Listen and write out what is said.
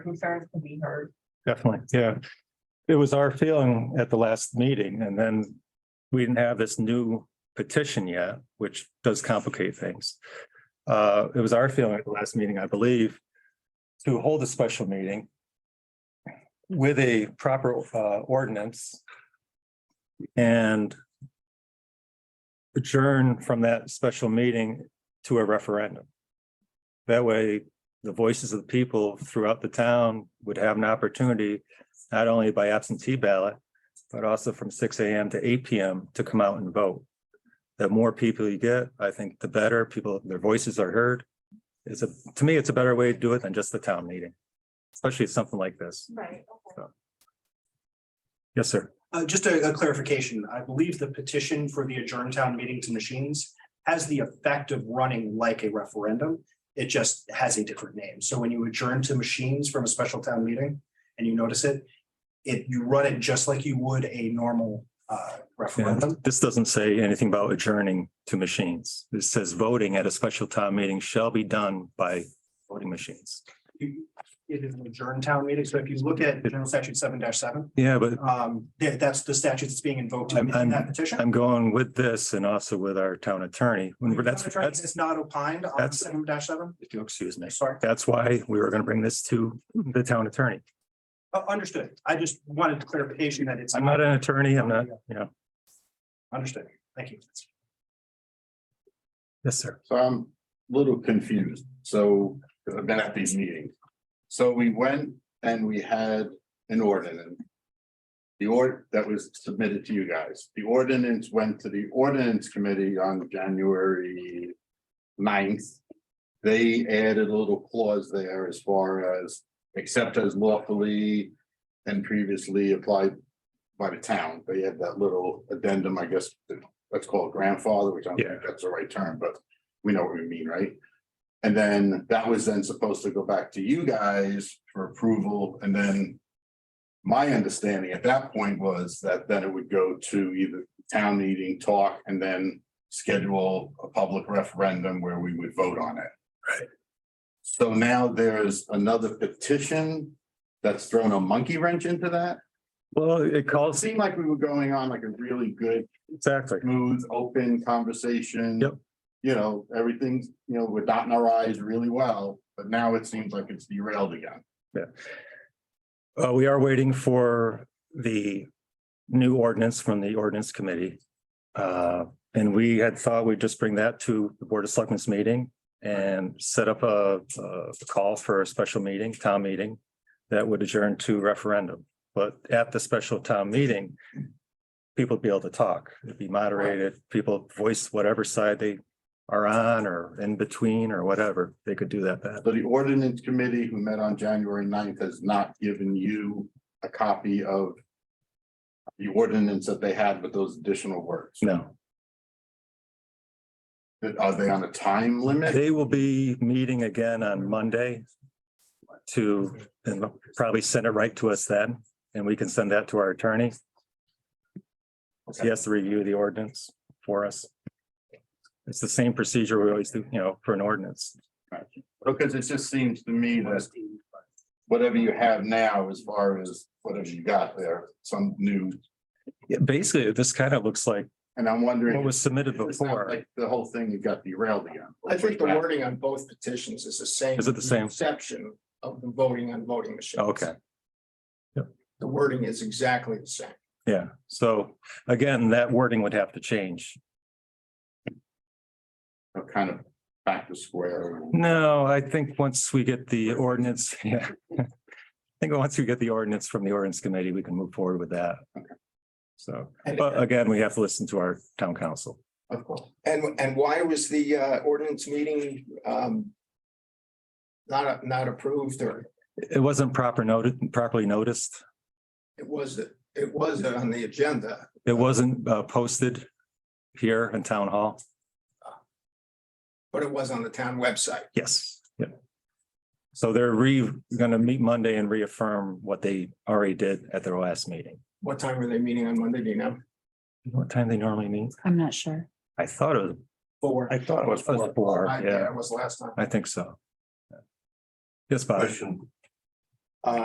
concerns can be heard. Definitely, yeah. It was our feeling at the last meeting and then we didn't have this new petition yet, which does complicate things. Uh, it was our feeling at the last meeting, I believe, to hold a special meeting with a proper uh ordinance and adjourn from that special meeting to a referendum. That way, the voices of the people throughout the town would have an opportunity, not only by absentee ballot, but also from six AM to eight PM to come out and vote. The more people you get, I think the better people, their voices are heard. It's a, to me, it's a better way to do it than just the town meeting, especially something like this. Right. Yes, sir. Uh, just a, a clarification, I believe the petition for the adjourned town meeting to machines has the effect of running like a referendum. It just has a different name. So when you adjourn to machines from a special town meeting and you notice it, it, you run it just like you would a normal, uh, Yeah, referendum. This doesn't say anything about adjourning to machines. It says voting at a special town meeting shall be done by voting machines. You- It is an adjourned town meeting. So if you look at general statute seven seven, Yeah, but um, that, that's the statute that's being invoked in I'm- in that petition. I'm going with this and also with our town attorney. When we're- That's, that's, It's not opined on that's- seven seven, if you'll excuse me. sorry. That's why we were going to bring this to the town attorney. Uh, Understood. I just wanted clarification that it's. I'm not an attorney. I'm not, you know. Understood. Thank you. Yes, sir. So I'm a little confused, so, 'cause I've been at these meetings. So we went and we had an ordinance. The ord, that was submitted to you guys, the ordinance went to the ordinance committee on January 9th. They added a little clause there as far as, except as lawfully and previously applied by the town, they had that little addendum, I guess, let's call it grandfather, which I don't think that's the right term, but we know what we mean, right? And then that was then supposed to go back to you guys for approval, and then. My understanding at that point was that then it would go to either town meeting, talk, and then schedule a public referendum where we would vote on it. Right. So now there's another petition that's thrown a monkey wrench into that. Well, it It calls, seemed like we were going on like a really good exactly. smooth, open conversation. Yep. You know, everything's, you know, we're dotting our i's really well, but now it seems like it's derailed again. Uh, we are waiting for the new ordinance from the ordinance committee. Uh, and we had thought we'd just bring that to the Board of Selectmen's meeting and set up a, a call for a special meeting, town meeting that would adjourn to referendum. But at the special town meeting, people would be able to talk, it'd be moderated, people voice whatever side they are on or in between or whatever, they could do that then. So the ordinance committee who met on January 9th has not given you a copy of the ordinance that they had with those additional words. No. Are they on a time limit? They will be meeting again on Monday to, and they'll probably send it right to us then, and we can send that to our attorney. He has to review the ordinance for us. It's the same procedure we always do, you know, for an ordinance. Because it just seems to me that whatever you have now, as far as whatever you got there, some new, Yeah, Basically, this kind of looks like and I'm wondering. what was submitted It's not before. Like the whole thing, it got derailed again. I think the wording on both petitions is the same. Is it the same? Oh, Exception of the voting on voting machines. Okay, The wording is exactly the same. yeah. So again, that wording would have to change. I'm Kind of back to square. No, I think once we get the ordinance, yeah. I think once we get the ordinance from the ordinance committee, we can move forward with that. So, And- but uh, again, we have to listen to our town council. Of course. And, and why was the uh, ordinance meeting um, not, not approved or It wasn't proper noted, properly noticed. it was, it was on the agenda? It wasn't uh, posted here in town hall. But it was on the town website. Yes. Yeah. So they're re, gonna meet Monday and reaffirm what they already did at their last meeting. What time were they meeting on Monday, do you know? What time they normally meet? I'm not sure. I thought it was, Four. I thought it was Four. four, I- yeah, It was last time. I think so. Yes, Bob. Question,